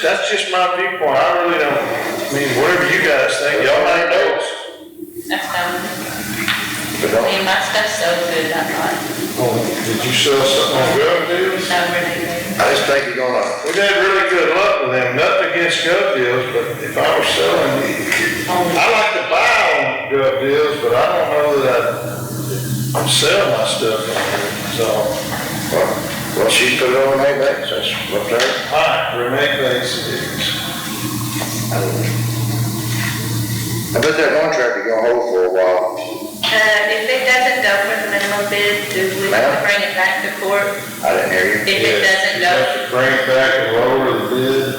that's just my viewpoint, I really don't, I mean, whatever you guys think, y'all might know us. That's no, But I I- mean, my stuff's so good, I'm like, oh, Did you sell something on GovDeals? no, really good. I just think you're gonna, We've had really good luck with them, nothing against GovDeals, but if I were selling, Uh, I like to buy on good deals, but I don't know that I sell my stuff on here, so. well, well, she put it on her back, that's up there. Alright, Renee thinks it is. I bet that contract is gonna hold for a while. Uh, if it doesn't go for the minimum bid, do we have to Ma'am? bring it back to court? I didn't hear If you. it doesn't You go, have to Bring it back and lower the bid,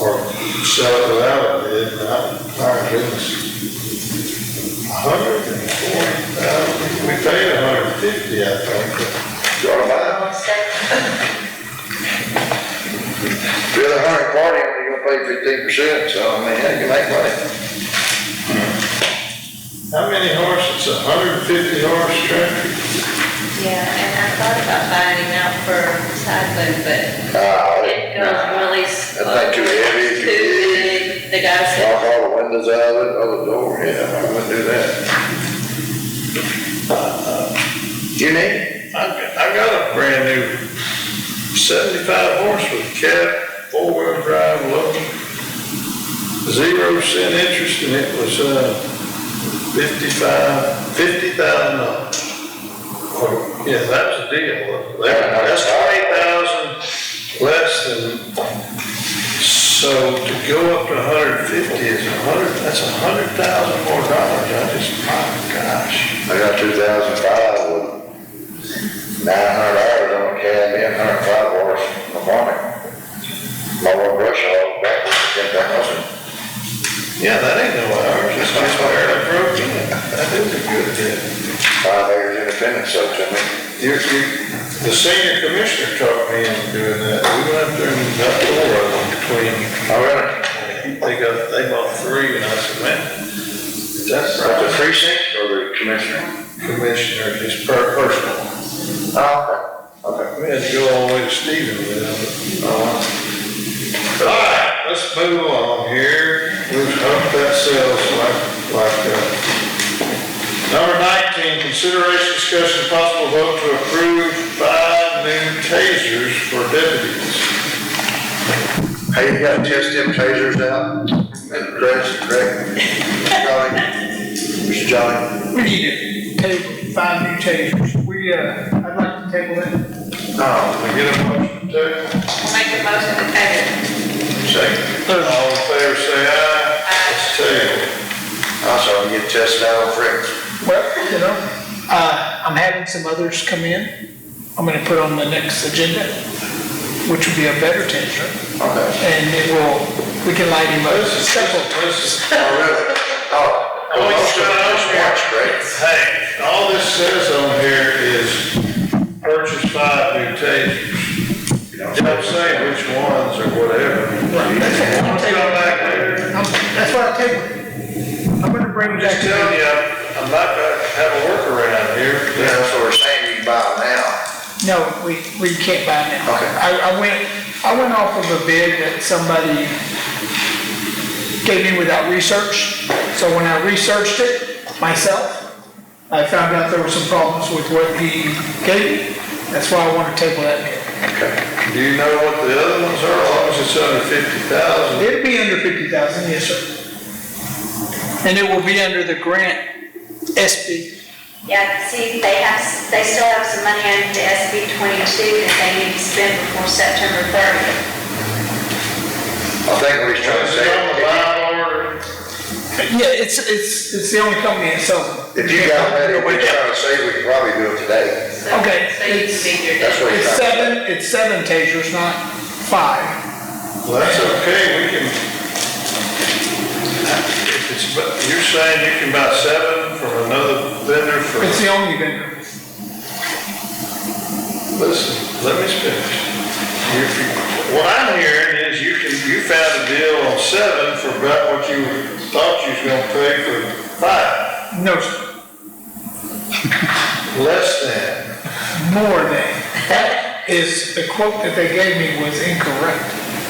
or sell it without a bid, not, our business. A hundred and forty thousand, we paid a hundred and fifty, I think. You ought to buy, I'll say, it. the other hundred party, you're gonna pay fifteen percent, so I mean, yeah, you make money. How many horses, a hundred and fifty horse tractor? yeah, and I thought about buying it out for side load, but Ah, it goes I- really slow. That's not too heavy, too Too big. The guy said, knock all the windows out of it, other door, yeah, I wouldn't do that. Uh, You need, I, I got a brand new seventy-five horse with cab, four-wheel drive, low, zero percent interest, and it was, uh, fifty-five, fifty thousand dollars. Yeah, that was a deal, That- that's twenty thousand less than, so to go up to a hundred and fifty is a hundred, that's a hundred thousand more dollars, I just, my gosh. I got two thousand five with nine hundred hours on the cab, and hundred five horse in the morning. My one brush hog back was ten thousand. Yeah, that ain't no hours, that's just where I broke in. That is a good deal. Five acres independent, so to me, You're, you, the senior commissioner talked me into doing that, we went up there and got four of them between, I Oh, really, they got, they bought three, and I said, man, that's at the right, precinct or the commissioner? the commissioner, just per personal. Oh, okay. We had to go all the way to Stephen with them. All right, let's move along here, we've upped that sales like, like, uh, Number 19, consideration, discussion, possible vote to approve five new tasers for deputies. Hey, you gotta test them tasers out, and Chris, Greg, Johnny, Mr. Johnny. We need to table five new tasers. We, uh, I'd like to table it. Oh, Can I get a motion to table? "We'll make a motion to table. second. All in favor, say aye. It's tabled. Also, you get tested out on Fritz. Well, you know, uh, I'm having some others come in. I'm gonna put on the next agenda, which would be a better taser, Okay. and it will, we can light him up. This is Simple. this is- Oh, really? Oh. Oh, you shut off your- Watch, great. Hey, all this says on here is purchase five new tasers. It Don't say which ones or whatever. Won't you Come back later. I'm- That's why I tabled it. I'm gonna bring I'm it just back to telling you. you, I'm I'm not gonna have a workaround here. Yeah, that's what we're saying, you can buy them now. No, we, we can't buy now. Okay. I, I went, I went off of a bid that somebody gave me without research. So when I researched it myself, I found out there were some problems with what he gave. me. That's why I want to table that bid. Do you know what the other ones are, as long as it's under fifty thousand? It'd be under fifty thousand, yes, sir. And it will be under the grant SB. Yeah, see, they have, they still have some money under the SB twenty-two that they need to spend before September thirtieth. I think what he's trying to say, buy Yeah, it's, it's, it's the only company that sells them. if you got that, what he's trying to say, we can probably do it today. So- Okay, So you can it's- be your That's deputy. what he's It's trying to seven, it's seven tasers, not five. Well, that's okay, we can. If it's, but you're saying you can buy seven from another vendor for, It's the only vendor. listen, let me finish. If you- What I'm hearing is you can, you found a deal on seven for about what you thought you was gonna pay for five, No, sir. less than. more than. That is, the quote that they gave me was incorrect.